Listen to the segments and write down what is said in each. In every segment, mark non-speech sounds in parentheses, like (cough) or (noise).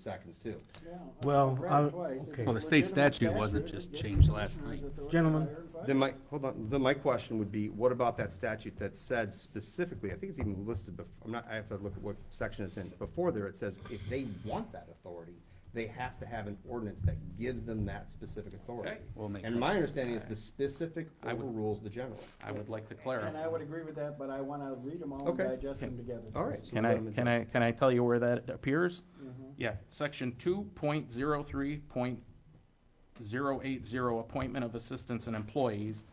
seconds too. Well, I- okay. Well, the state statute wasn't just changed last night. Gentlemen. Then my, hold on, then my question would be, what about that statute that said specifically, I think it's even listed before, I'm not, I have to look at what section it's in. Before there, it says if they want that authority, they have to have an ordinance that gives them that specific authority. Okay, we'll make And that- my understanding is the specific I would- overrules the general. I would like to And I clarify. would agree with that, but I want to read them all and Okay. digest them together. All right. so Can we'll I, let them can adjourn. I, can I tell you where that appears? Mhm. Yeah, section two point zero three point zero eight zero, appointment of assistants and employees.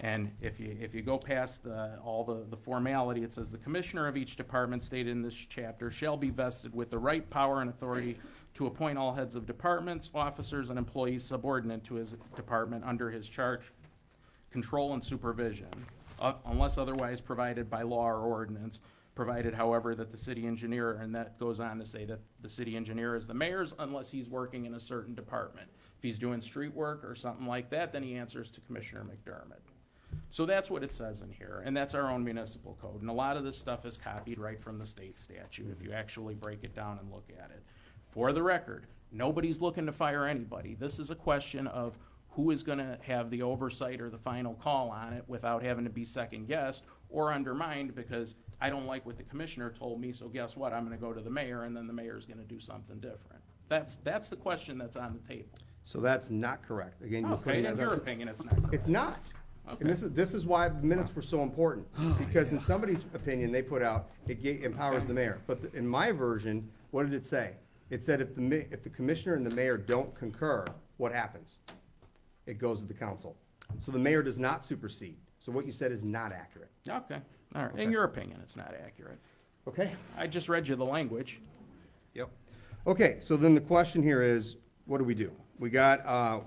And if you, if you go past the, all the, the formality, it says the commissioner of each department stated in this chapter shall be vested with the right power and authority to appoint all heads of departments, officers, and employees subordinate to his department under his charge, control and supervision, uh, unless otherwise provided by law or ordinance, provided however that the city engineer, and that goes on to say that the city engineer is the mayor's unless he's working in a certain department. If he's doing street work or something like that, then he answers to Commissioner McDermott. So that's what it says in here, and that's our own municipal code, and a lot of this stuff is copied right from the state statute, if you actually break it down and look at it. For the record, nobody's looking to fire anybody, this is a question of who is gonna have the oversight or the final call on it without having to be second-guessed or undermined, because I don't like what the commissioner told me, so guess what, I'm gonna go to the mayor, and then the mayor's gonna do something different. That's, that's the question that's on the table. So that's not correct. Again, you're Okay, putting in your that, opinion, (laughs) it's not correct. It's not. And this is, this is why minutes were so important, because in somebody's opinion, they put out, it ga- empowers the mayor. But the- in my version, what did it say? It said if the ma, if the commissioner and the mayor don't concur, what happens? It goes to the council. So the mayor does not supersede. So what you said is not accurate, Okay, all right, in your opinion, it's not accurate. okay? I just read you the language. Yep. Okay, so then the question here is, what do we do? We got, uh,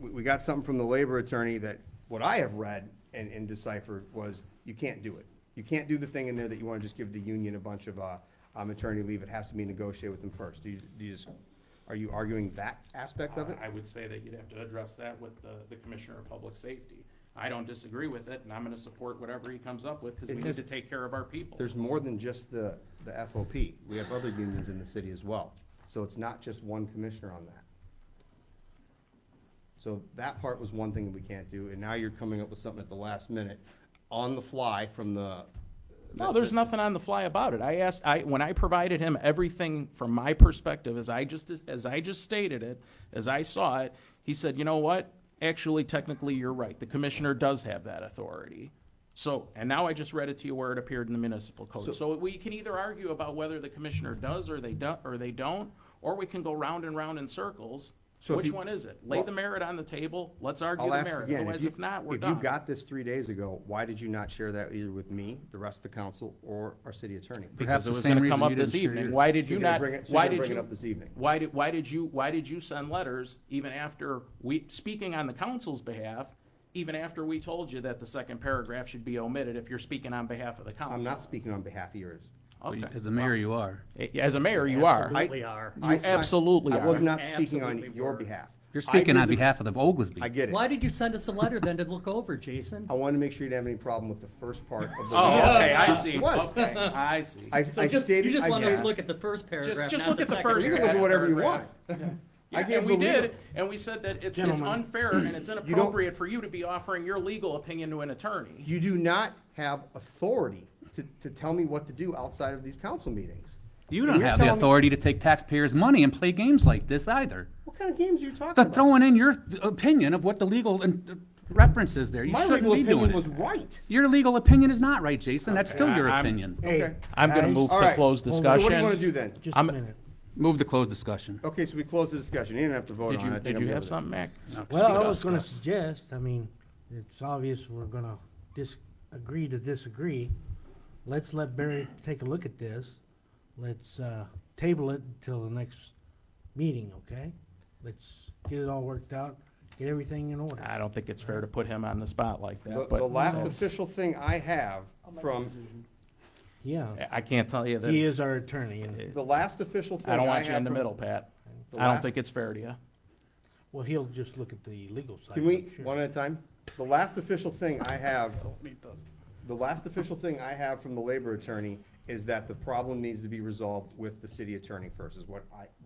we, we got something from the labor attorney that, what I have read and, and deciphered was, you can't do it. You can't do the thing in there that you wanna just give the union a bunch of, uh, um, attorney leave, it has to be negotiated with them first. Do you, do you just, are you arguing that aspect of it? I would say that you'd have to address that with the, the Commissioner of Public Safety. I don't disagree with it, and I'm gonna support whatever he comes up with, because It we need has- to take care of our people. There's more than just the, the FOP, we have other unions in the city as well, so it's not just one commissioner on that. So that part was one thing that we can't do, and now you're coming up with something at the last minute, on the fly from the. No, there's nothing on the fly about it. I asked, I, when I provided him everything from my perspective, as I just, as I just stated it, as I saw it, he said, you know what? Actually, technically, you're right. The commissioner does have that authority. So, and now I just read it to you where it appeared in the municipal So- code. So we can either argue about whether the commissioner does or they don't, or they don't, or we can go round and round in circles. So if Which you- one is it? Lay the merit on the table, let's argue I'll the ask merit. again, Otherwise, you- if not, we're If you done. got this three days ago, why did you not share that either with me, the rest of the council, or our city attorney? Because the it was same gonna reason come up you didn't this share evening. yours. Why did So you you're gonna not, bring it- so why you're gonna did bring it you? up this evening? Why did, why did you, why did you send letters even after we, speaking on the council's behalf, even after we told you that the second paragraph should be omitted if you're speaking on behalf of the council? I'm not speaking on behalf of yours. Well, you- Okay. As the mayor, you are. Eh, As a mayor, you are. Absolutely are. I You si- absolutely I was are. not speaking on Absolutely your were. behalf. You're I did speaking on the- behalf of the Oglesby. I get it. Why did you send us a letter then to look over, Jason? I wanted to make sure you didn't have any problem with the first part of the. Oh, okay, I see. It was. Okay, I see. I, So I just, stated. you just I want us to stated- look at the first paragraph, just not look the at the second. first You can look at whatever you want. I Yeah, gave and we the did, legal- and we said that it's, it's unfair and it's inappropriate for you to be offering your legal opinion to an attorney. You do not have authority to, to tell me what to do outside of these council meetings. You And don't you're have the telling me- authority to take taxpayers' money and play games like this either. What kind of games are you talking Th- about? Throwing in your opinion of what the legal and- uh, reference is there. You My shouldn't legal be doing opinion was it. right. Your legal opinion is not right, Jason. That's still your I- I'm- opinion. Okay. I'm gonna move All to right. close So what do you want to discussion. do then? Just a I'm- minute. Move to close discussion. Okay, so we close the discussion. You didn't have to vote on it. Did I you, think did I'm you good have with it. something, Mac? No, Well, I speak was up. gonna suggest, I mean, it's obvious we're gonna disagree to disagree. Let's let Barry take a look at this. Let's, uh, table it until the next meeting, okay? Let's get it all worked out, get everything in order. I don't think it's fair to put him on the spot like that, The, the but last that's- official thing I have from, Yeah, I can't tell you that. he it's- is our attorney and, the last official thing I I have. don't want you in the from- middle, Pat. the I don't last- think it's fair to you. well, he'll just look at the legal side. Can I'm we, sure. one at a time? The last official thing I have, the last official thing I have from the labor attorney is that the problem needs to be resolved with the city attorney first, is what I,